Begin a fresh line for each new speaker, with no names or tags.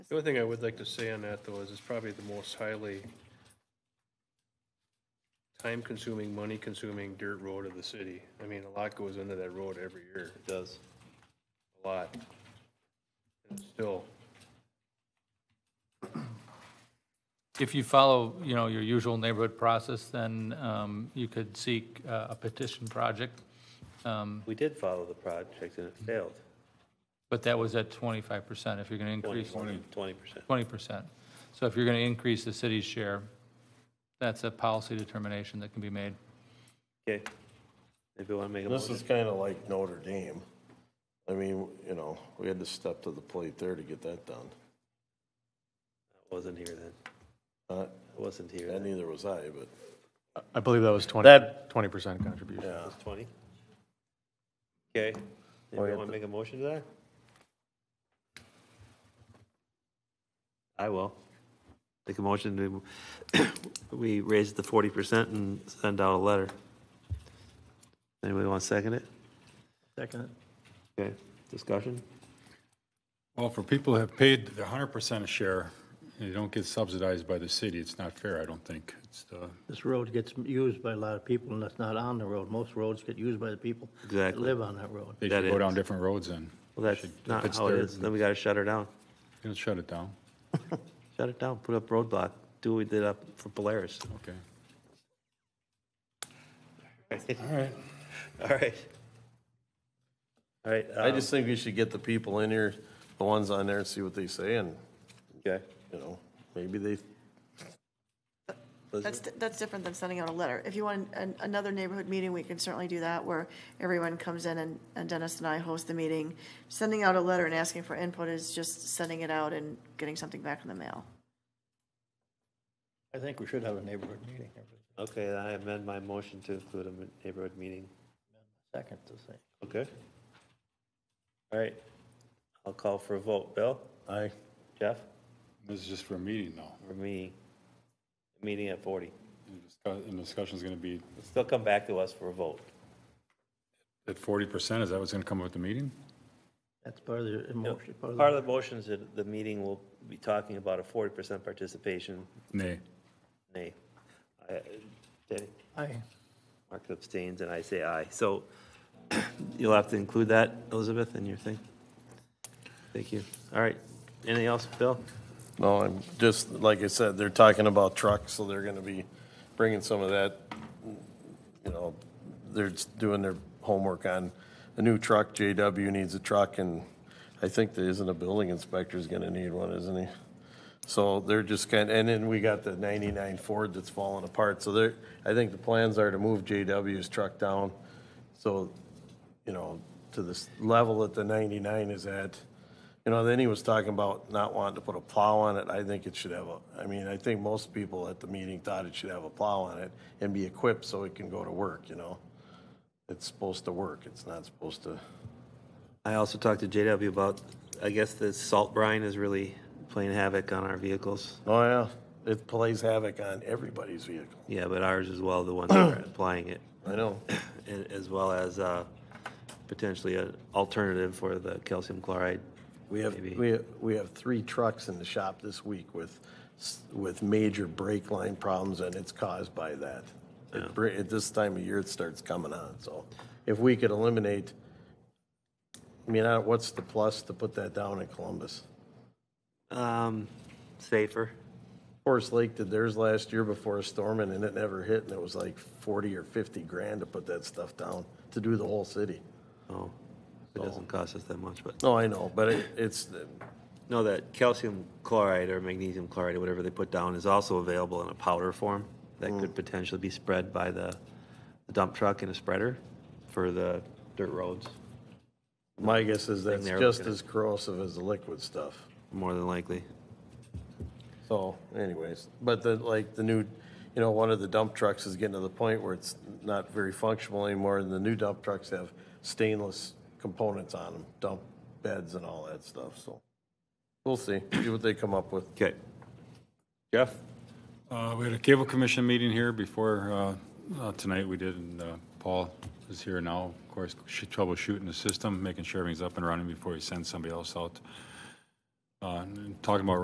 The only thing I would like to say on that, though, is it's probably the most highly time-consuming, money-consuming dirt road of the city. I mean, a lot goes into that road every year,
It does.
a lot. And Still,
If you follow, you know, your usual neighborhood process, then um, you could seek uh, a petition project, um,
We did follow the project and it failed.
but that was at 25% if you're going to increase
Twenty percent.
20%. So if you're going to increase the city's share, that's a policy determination that can be made.
Okay. Maybe want to make a
This
motion.
is kind of like Notre Dame. I mean, you know, we had to step to the plate there to get that done.
I Wasn't here then.
Uh,
I wasn't here
And
then.
neither was I, but
I believe that was 20, 20% contribution.
It was twenty. Okay. Anybody want to make a motion to that? I will. Make a motion to, we raise the forty percent and send out a letter. Anybody want to second it?
Second.
Okay, discussion?
Well, for people who have paid their hundred percent share, and they don't get subsidized by the city, it's not fair, I don't think. It's, uh,
This road gets used by a lot of people, and that's not on the road. Most roads get used by the people that
Exactly.
live on that road.
they
That
should go down
is-
different roads then.
Well, that's
Should- if
not
it's
how it
their-
is. Then we got to shut her down.
You know, shut it down,
Shut it down, put up roadblock, do what we did up for Polaris.
okay.
All right. All right. All right. um,
I just think we should get the people in here, the ones on there, and see what they say, and,
Okay.
you know, maybe they,
That's, that's different than sending out a letter. If you want an- another neighborhood meeting, we can certainly do that, where everyone comes in and and Dennis and I host the meeting. Sending out a letter and asking for input is just sending it out and getting something back in the mail.
I think we should have a neighborhood meeting every
Okay, then I amend my motion to include a neighborhood meeting. Oh,
second to say.
Okay? All right. I'll call for a vote. Bill? Aye. Jeff?
This is just for a meeting though.
Or me? Meeting at 40.
And the discuss- And the discussion's gonna be,
It'll Still come back to us for a vote.
at forty percent, is that what's gonna come with the meeting?
That's part of the emotion, part of
Part
the,
of the motion is that the meeting will be talking about a 40% participation.
Nay.
Nay. I- Danny?
I,
Mark abstains and I say aye. So you'll have to include that, Elizabeth, in your thing. Thank you. All right. Anything else, Bill?
no, I'm just, like I said, they're talking about trucks, so they're gonna be bringing some of that, you know, they're just doing their homework on a new truck, JW needs a truck, and I think there isn't a building inspector's gonna need one, isn't he? So they're just kind, of and then we got the 99 Ford that's falling apart, so they're, I think the plans are to move JW's truck down, so, you know, to this level that the 99 is at. You know, then he was talking about not wanting to put a plow on it, I think it should have a, I mean, I think most people at the meeting thought it should have a plow on it and be equipped so it can go to work, you know? It's supposed to work, it's not supposed to,
I also talked to JW about, I guess the salt brine is really playing havoc on our vehicles.
oh yeah, it plays havoc on everybody's vehicle,
Yeah, but ours as well, the ones that are applying it,
I know.
and as well as uh, potentially an alternative for the calcium chloride.
We have,
Maybe.
we, we have three trucks in the shop this week with, s- with major brake line problems, and it's caused by that. It br- At this time of year, it starts coming on, so if we could eliminate, I mean, I- what's the plus to put that down in Columbus?
Um, Safer.
Forest Lake did theirs last year before a storm, and then it never hit, and it was like forty or fifty grand to put that stuff down, to do the whole city.
Oh, it doesn't cost us that much, but.
No, I know, but it, it's,
No, that calcium chloride or magnesium chloride or whatever they put down is also available in a powder form that could potentially be spread by the dump truck and a spreader for the dirt roads,
my guess is that's
they're
just
looking at.
as corrosive as the liquid stuff.
more than likely.
So anyways, but the, like, the new, you know, one of the dump trucks is getting to the point where it's not very functional anymore, and the new dump trucks have stainless components on them, dump beds and all that stuff, so. We'll see, see what they come up with.
Okay. Jeff?
Uh, we had a cable commission meeting here before, uh, uh, tonight we did, and, uh, Paul is here now, of course, sh- troubleshooting the system, making sure everything's up and running before he sends somebody else out. uh, and talking about